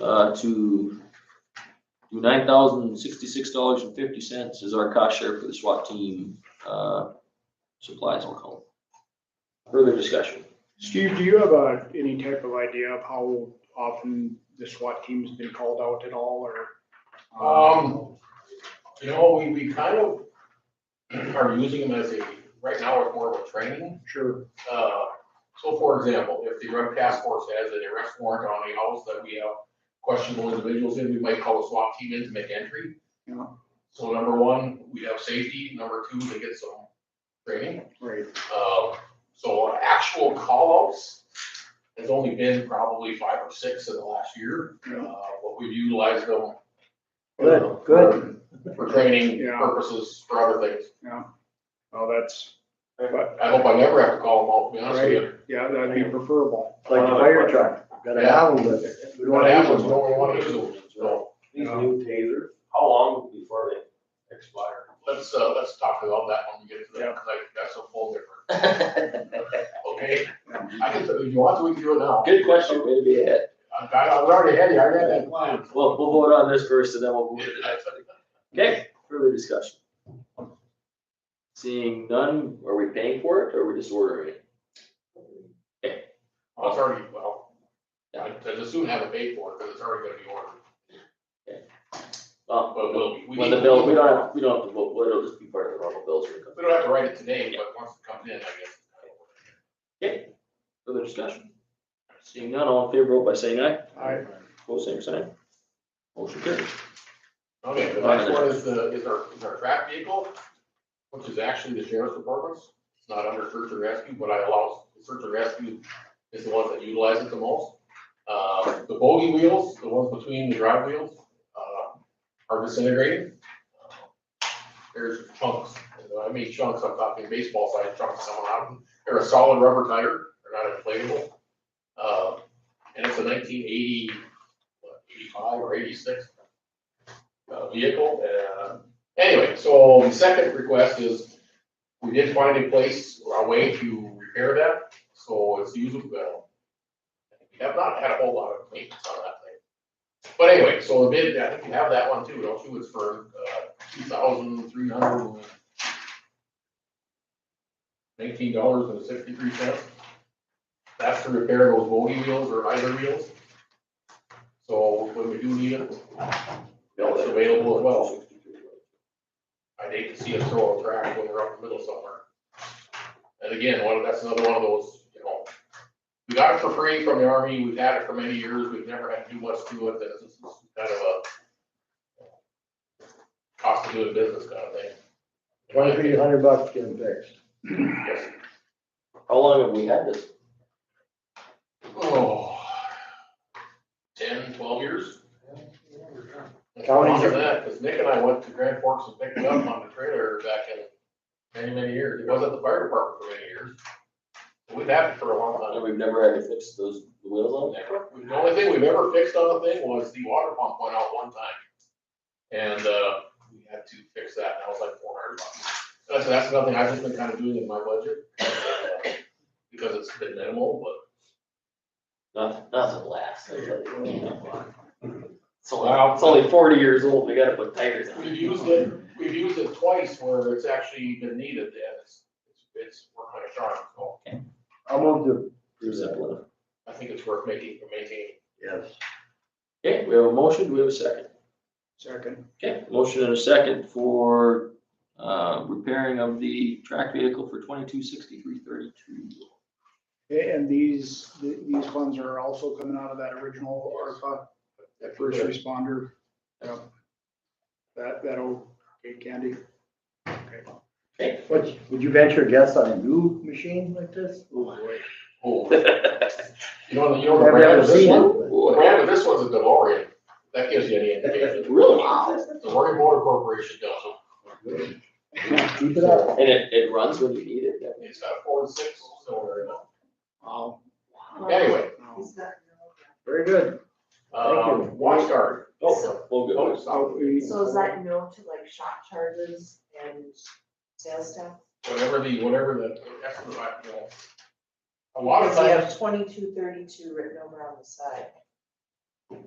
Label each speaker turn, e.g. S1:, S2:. S1: uh, to do nine thousand sixty-six dollars and fifty cents is our cost share for the SWAT team, uh, supplies, we'll call it. Further discussion?
S2: Steve, do you have a, any type of idea of how often the SWAT team's been called out at all or?
S3: Um, you know, we, we kind of are using them as a, right now it's more of a training.
S2: Sure,
S3: Uh, so for example, if the rec task force has an arrest warrant on a house that we have questionable individuals in, we might call a SWAT team in to make entry.
S2: Yeah.
S3: So number one, we have safety. Number two, they get some training.
S2: right.
S3: Uh, so actual call-outs has only been probably five or six in the last year.
S2: Yeah.
S3: Uh, but we've utilized them. uh,
S4: Good, good.
S3: for training
S2: Yeah.
S3: purposes, for other things.
S2: Well, that's, but,
S3: I hope I never have to call them out, to be honest with you.
S2: yeah, that'd be preferable. Uh,
S4: It's Like a fire truck, gotta have them, but we
S3: But
S4: don't wanna use
S3: apples
S4: them.
S3: don't really wanna use them, so
S5: These new tasers, how long before they expire?
S3: let's, uh, let's talk about that when we get to
S2: Yeah.
S3: that, 'cause I that's a whole different, okay? I can, if you want to, we can do it now.
S1: Good question, way to be ahead.
S3: I, I was already ahead, of you, I read that plan.
S1: Well, we'll vote on this first and then we'll move to the next. Okay, further discussion? Seeing none, are we paying for it or are we just ordering it?
S3: Well, It's already, well, I'd I'd as soon have it paid for, because it's already gonna be ordered,
S1: Well,
S3: but Uh, we'll. we
S1: When the
S3: need-
S1: bill, we don't have, we don't have to vote, well, it'll just be part of the normal bills. when it comes.
S3: We don't have to write it today, but once it comes in, I guess.
S1: Further discussion? Seeing none, all in favor, vote by saying aye.
S2: I,
S1: Both same sign. Motion carries.
S3: Okay, the next one is the, is our, is our track vehicle, which is actually the sheriff's department's. It's not under search and rescue, but I allow, search and rescue is the ones that utilize it the most. Uh, the bogey wheels, the ones between the drive wheels, uh, are disintegrating. There's chunks, and when I mean chunks, I'm talking baseball sized chunks coming out of them. They're a solid rubber tire, they're not inflatable. Uh, and it's a nineteen eighty, what, eighty-five or eighty-six uh, vehicle. Uh, Anyway, so the second request is, we did find a place, or a way to repair that, so it's usable. well, We have not had a whole lot of maintenance on that thing. But anyway, so the bid, I think you have that one too, don't you? It's for uh, two thousand three hundred nineteen dollars and sixty-three cents. That's to repair those bogey wheels or either wheels. So when we do need it, it's available as well. I'd hate to see us throw a crack when we're up in the middle somewhere. And again, one, that's another one of those, you know, we got it for free from the army, we've had it for many years, we've never had to do much to it, that's just kind of a cost of doing business kind of thing.
S4: Twenty-three hundred bucks getting fixed.
S3: Yes.
S1: How long have we had this?
S3: Oh, ten, twelve years?
S4: Counties
S3: Longer
S4: are-
S3: than that, because Nick and I went to Grand Forks and picked it up on the trailer back in many, many years. It was at the fire department for many years. We've had it for a long
S1: And
S3: time.
S1: we've never had to fix those wheels on it?
S3: The only thing we've ever fixed on the thing was the water pump went out one time. And, uh, we had to fix that, and that was like four hundred bucks. That's, that's nothing I've just been kind of doing in my budget. uh, Because it's been minimal, but
S1: Nothing, nothing lasts. I tell you. It's only,
S3: Wow.
S1: it's only forty years old, we gotta put tires on
S3: We've
S1: it.
S3: used it, we've used it twice where it's actually been needed, and it's, it's, it's worked like a charm, so
S4: I'll move to,
S1: Pretty simple enough.
S3: I think it's worth making, maintaining.
S4: yes.
S1: Okay, we have a motion, do we have a second?
S2: second,
S1: Okay, motion and a second for, uh, repairing of the track vehicle for twenty-two sixty-three thirty-two.
S2: and these, th- these funds are also coming out of that original ARPA, that first responder. Yeah. That, that'll, okay, Candy. Okay.
S4: What, would you venture a guess on a new machine like this?
S3: Oh, you know, you know, the
S4: I've
S3: brand
S4: never
S3: of this
S4: seen
S3: one,
S4: it.
S3: the
S1: Boy,
S3: brand of this one's a DeLorean, that gives you any indication.
S1: Really?
S3: The Oregon Motor Corporation does them,
S4: but Keep it up.
S1: And it, it runs when you need it.
S3: it's got a four and six cylinder in
S2: Wow.
S3: it. Anyway,
S6: Um,
S2: Wow.
S4: Very good. Thank
S3: um,
S4: you.
S3: watch guard.
S1: Oh, well, good.
S2: So we-
S6: So is that no to like shop charges and sales tax?
S3: Whatever the, whatever the, that's the, you know. A lot of
S6: Because we
S3: times,
S6: have twenty-two thirty-two written over on the side.